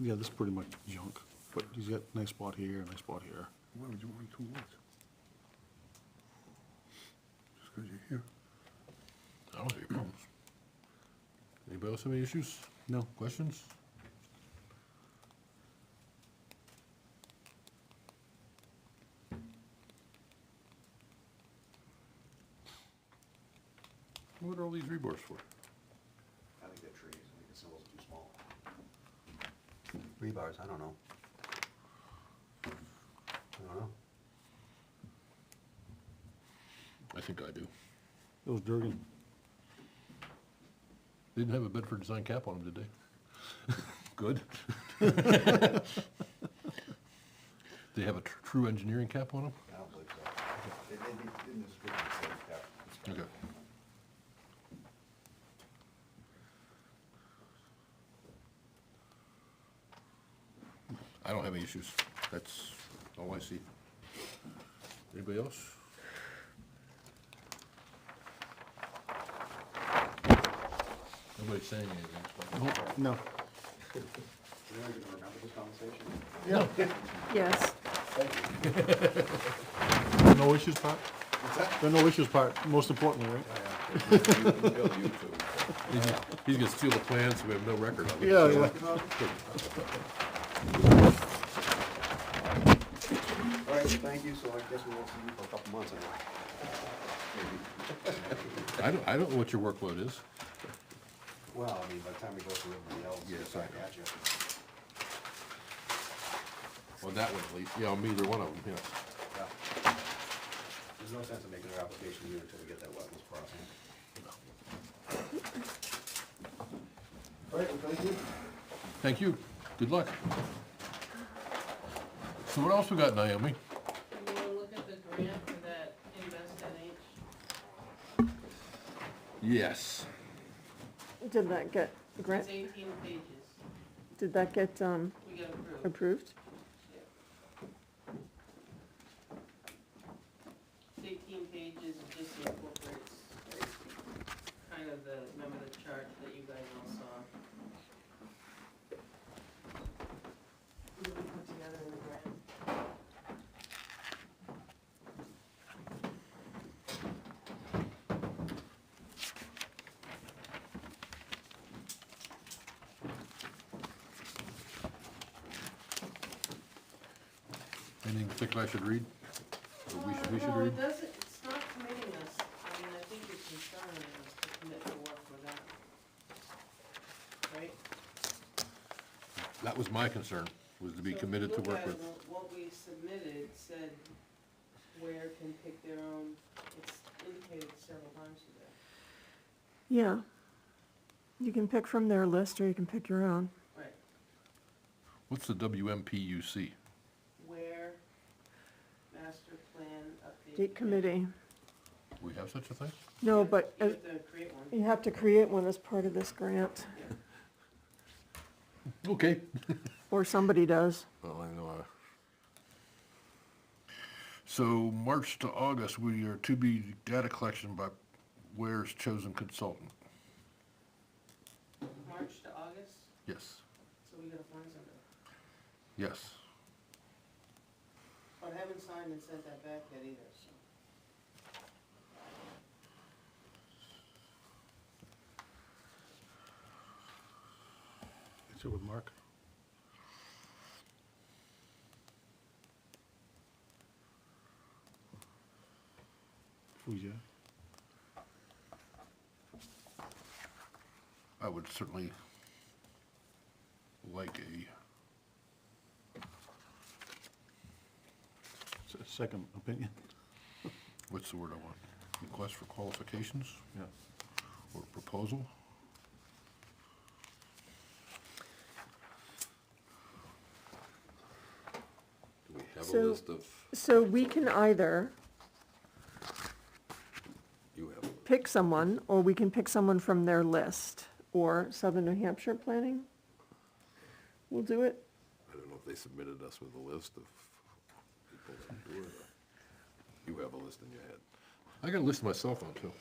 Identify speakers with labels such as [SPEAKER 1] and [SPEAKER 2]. [SPEAKER 1] yeah, this is pretty much junk, but he's got a nice spot here, a nice spot here.
[SPEAKER 2] Why would you want two lots? Just because you're here.
[SPEAKER 3] I don't have any problems. Anybody else have any issues?
[SPEAKER 1] No.
[SPEAKER 3] Questions? What are all these rebars for?
[SPEAKER 4] I think they're trees, I think the symbol's too small. Rebars, I don't know. I don't know.
[SPEAKER 3] I think I do.
[SPEAKER 1] Those Durgan,
[SPEAKER 3] They Didn't have a Bedford design cap on them, did they? Good. They have a tr- true engineering cap on them?
[SPEAKER 4] I don't believe so. They, they didn't describe it, so that- that's-
[SPEAKER 3] Okay. I don't have any issues. That's all I see. Anybody else? Nobody's saying anything. so-
[SPEAKER 1] no,
[SPEAKER 4] Do you guys even remember this conversation?
[SPEAKER 5] Yes.
[SPEAKER 1] no issues part?
[SPEAKER 4] What's that?
[SPEAKER 1] The no issues part, most importantly, right?
[SPEAKER 3] He's he's gonna steal the plans, we have no record of it.
[SPEAKER 1] Yeah, yeah.
[SPEAKER 4] All right, thank you, so I guess we won't see you for a couple months anyway. Maybe.
[SPEAKER 3] I don't, I don't know what your workload is.
[SPEAKER 4] Well, I mean, by the time we go through everybody else.
[SPEAKER 3] Yes,
[SPEAKER 4] I
[SPEAKER 3] I know.
[SPEAKER 4] got you.
[SPEAKER 3] On that one, at least. Yeah, on either one of them, yeah.
[SPEAKER 4] Yeah. There's no sense in making an application here until we get that wetlands process. All right, well, thank you.
[SPEAKER 3] Thank you. Good luck. So what else we got, Naomi?
[SPEAKER 6] Can you look at the grant for that Invest NH?
[SPEAKER 3] Yes.
[SPEAKER 5] Did that get, grant,
[SPEAKER 6] It's eighteen pages.
[SPEAKER 5] did that get um,
[SPEAKER 6] We got approved.
[SPEAKER 5] approved?
[SPEAKER 6] Yeah. It's Eighteen pages, it just incorporates like, kind of the, remember the chart that you guys all saw? We put together in the grant.
[SPEAKER 3] Anything in particular I should read? Or we should, we should
[SPEAKER 6] Uh, No,
[SPEAKER 3] read?
[SPEAKER 6] it doesn't, it's not committing us, I mean, I think it's inspiring us to commit to work with that. Right?
[SPEAKER 3] That was my concern, was to be
[SPEAKER 6] So if you
[SPEAKER 3] committed to
[SPEAKER 6] look
[SPEAKER 3] work
[SPEAKER 6] at
[SPEAKER 3] with.
[SPEAKER 6] wh- What we submitted said where can pick their own, it's indicated several times to that.
[SPEAKER 5] Yeah. You can pick from their list or you can pick your own.
[SPEAKER 6] Right,
[SPEAKER 3] What's the WMPUC?
[SPEAKER 6] where master plan update.
[SPEAKER 5] Gate committee.
[SPEAKER 3] We have such a thing?
[SPEAKER 5] No, but
[SPEAKER 6] You
[SPEAKER 5] uh,
[SPEAKER 6] have to create one.
[SPEAKER 5] you have to create one as part of this grant,
[SPEAKER 3] Okay.
[SPEAKER 5] or somebody does.
[SPEAKER 3] Well, I know. I- So March to August, we are to be data collection by Ware's chosen consultant.
[SPEAKER 6] March to August,
[SPEAKER 3] Yes,
[SPEAKER 6] so we gotta find somebody.
[SPEAKER 3] yes.
[SPEAKER 6] But I haven't signed and sent that back yet either, so.
[SPEAKER 1] It's with Mark. Oh, yeah.
[SPEAKER 3] I would certainly like a,
[SPEAKER 1] S- Second opinion.
[SPEAKER 3] what's the word I want? Request for qualifications
[SPEAKER 1] Yeah.
[SPEAKER 3] or proposal?
[SPEAKER 7] Do we have
[SPEAKER 5] So-
[SPEAKER 7] a list of,
[SPEAKER 5] So we can either
[SPEAKER 7] you have, a-
[SPEAKER 5] pick someone, or we can pick someone from their list, or Southern New Hampshire Planning. We'll do it.
[SPEAKER 7] I don't know if they submitted us with a list of people that do it. or- You have a list in your head.
[SPEAKER 3] I got a list myself on too.